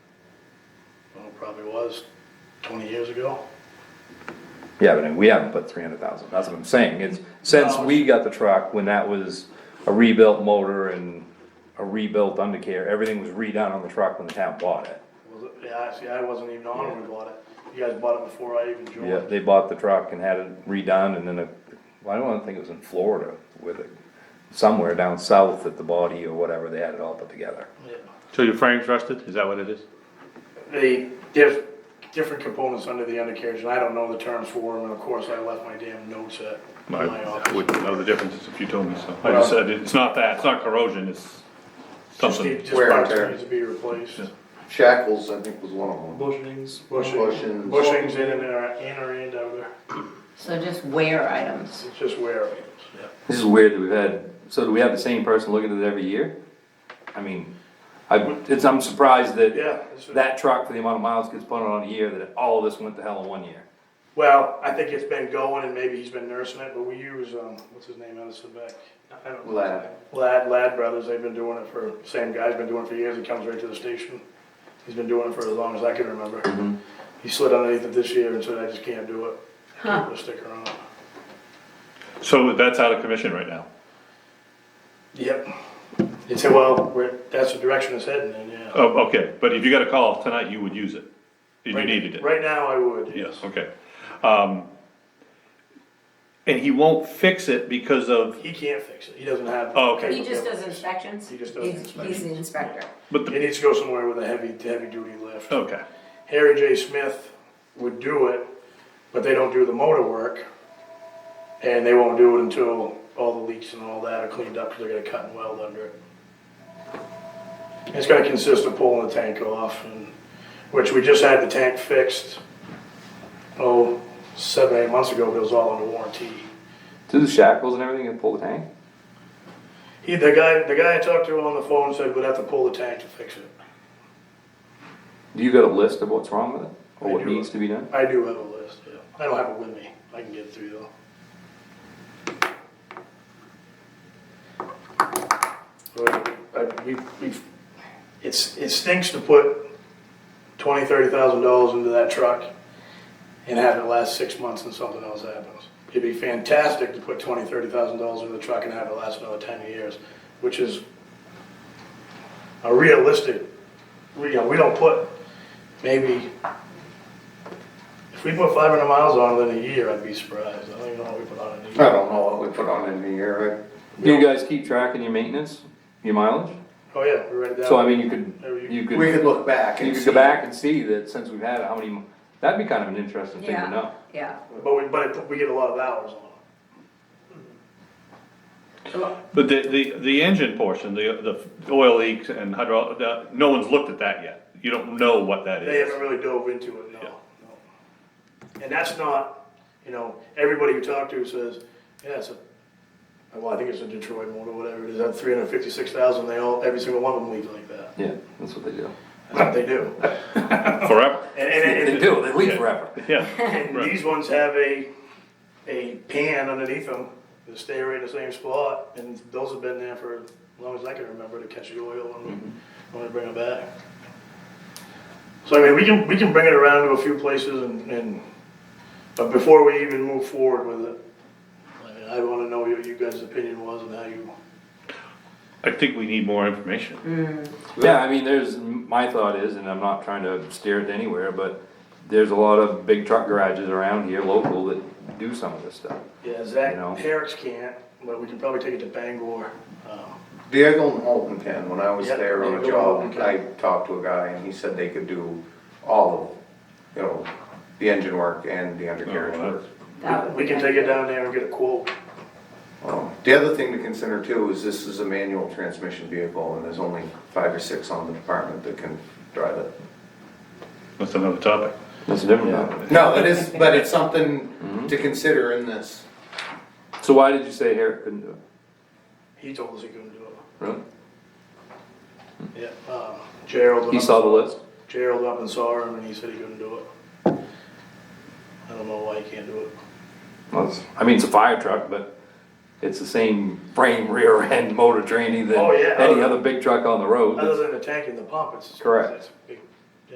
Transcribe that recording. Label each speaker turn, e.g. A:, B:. A: Well, it probably was twenty years ago.
B: Yeah, but we haven't put three hundred thousand, that's what I'm saying, it's, since
A: No.
B: we got the truck, when that was a rebuilt motor and a rebuilt undercarriage, everything was redone on the truck when the town bought it.
A: Was it, yeah, see, I wasn't even on when we bought it. You guys bought it before I even
B: Yeah,
A: joined.
B: they bought the truck and had it redone and then a, well, I don't think it was in Florida with it, somewhere down south at the body or whatever, they had it all put together.
A: Yeah.
C: So your frame's rusted, is that what it is?
A: They, diff, different components under the undercarriage, and I don't know the terms for them, and of course, I left my damn notes at my
C: I
A: office.
C: wouldn't know the difference if you told me so. I just said, it's not that, it's not corrosion, it's
A: Just
C: something.
A: need, just
D: Wear and
A: parts
D: tear.
A: that needs to be replaced.
D: Shackles, I think, was one of them.
E: Bushings.
A: Bushing,
D: Bushings.
A: bushings in and out, in or in out there,
F: So just wear items.
A: it's just wear items, yeah.
B: This is weird that we've had, so do we have the same person looking at it every year? I mean, I, it's, I'm surprised that
A: Yeah, it's a-
B: that truck, for the amount of miles gets put on a year, that all of this went to hell in one year.
A: Well, I think it's been going and maybe he's been nursing it, but we use, um, what's his name out of Quebec? I don't know.
D: Lad.
A: Lad, Lad Brothers, they've been doing it for, same guy's been doing it for years, he comes right to the station. He's been doing it for as long as I can remember. He slid underneath it this year and said, I just can't do it, I can't put a sticker on it.
C: So that's out of commission right now.
A: Yep. He said, well, we're, that's the direction it's heading in, yeah.
C: Oh, okay, but if you got a call tonight, you would use it, if you
A: Right-
C: needed it.
A: Right now I would.
C: Yes, okay. Um, and he won't fix it because of,
A: He can't fix it, he doesn't have.
C: Oh, okay.
F: He just does inspections?
A: He just does
F: He's- He's the inspector.
C: but
A: It
C: the,
A: needs to go somewhere with a heavy, heavy duty lift.
C: okay,
A: Harry J. Smith would do it, but they don't do the motor work. And they won't do it until all the leaks and all that are cleaned up, because they're gonna cut and weld under it. It's gonna consist of pulling the tank off, and, which we just had the tank fixed, oh, seven, eight months ago, but it was all under warranty.
B: Do the shackles and everything and pull the tank?
A: He, the guy, the guy I talked to on the phone said we'd have to pull the tank to fix it.
B: Do you got a list of what's wrong with it? Or
A: I
B: what
A: do.
B: needs to be done?
A: I do have a list, yeah. I don't have it with me. I can get it through though. But, I- uh, we, we, it's, it stinks to put twenty, thirty thousand dollars into that truck and have it last six months and something else happens. It'd be fantastic to put twenty, thirty thousand dollars into the truck and have it last another ten years, which is a realistic, we, you know, we don't put maybe if we put five hundred miles on it in a year, I'd be surprised. I don't even know what we put on in a
D: I
A: year.
D: don't know what we put on in the year,
B: Do you guys keep track in your maintenance, your mileage?
A: Oh, yeah, we write it down.
B: So I mean, you
A: There
B: could,
A: you-
B: you
D: right? We could
B: could,
D: look back and
B: you
D: see.
B: could go back and see that since we've had it, how many, that'd be kind of an interesting thing
F: Yeah.
B: to know.
F: Yeah.
A: But we, but it- we get a lot of hours on it.
C: but the, the, the engine portion, the, the oil leaks and hydraulic, uh, no one's looked at that yet. You don't know what that
A: They
C: is.
A: haven't really dove into it, no, no. And that's not, you know, everybody you talk to says, yeah, it's a, well, I think it's a Detroit motor, whatever it is, that three hundred fifty-six thousand, they all, every single one of them leave like that.
B: Yeah, that's what they do.
A: That's what they do.
C: Forever,
A: And, and,
B: They
A: and,
B: do, they leave
C: Yeah.
B: forever.
C: yeah.
A: and these ones have a, a pan underneath them that stay right in the same spot, and those have been there for as long as I can remember to catch the oil when,
B: Mm-hmm.
A: we- when we bring them back. So I mean, we can, we can bring it around to a few places and, and, but before we even move forward with it, I mean, I wanna know what you guys' opinion was and how you,
C: I think we need more information.
B: Yeah, I mean, there's, my thought is, and I'm not trying to steer it anywhere, but there's a lot of big truck garages around here local that do some of this stuff.
A: yeah, Zach,
B: You know.
A: Herrick's can't, but we can probably take it to Bangor. um,
D: Diego and Holton can, when I was
A: Yeah,
D: there on a
A: Diego
D: job,
A: and Holton
D: I talked to a guy and he said they could do all of, you know, the engine work and the undercarriage
C: Oh, well,
D: work.
F: that would
A: We
F: be
A: can take it down there and get a quote.
D: Um, The other thing to consider too is this is a manual transmission vehicle and there's only five or six on the department that can drive it.
C: That's another topic.
B: That's different
A: Yeah.
B: though.
D: No, it is, but it's something to consider in this.
B: So why did you say Harriet couldn't do it?
A: He told us he couldn't do it.
B: Really?
A: Yeah, um, Gerald. went
B: He
A: up-
B: saw the list?
A: Gerald up and saw him, and he said he couldn't do it. I don't know why he can't do it.
B: Well, it's- I mean, it's a fire truck, but it's the same frame, rear end, motor training than
A: Oh, yeah.
B: any other big truck on the
A: Other
B: road.
A: than the tank and the pump, it's.
B: Correct.
A: it's a big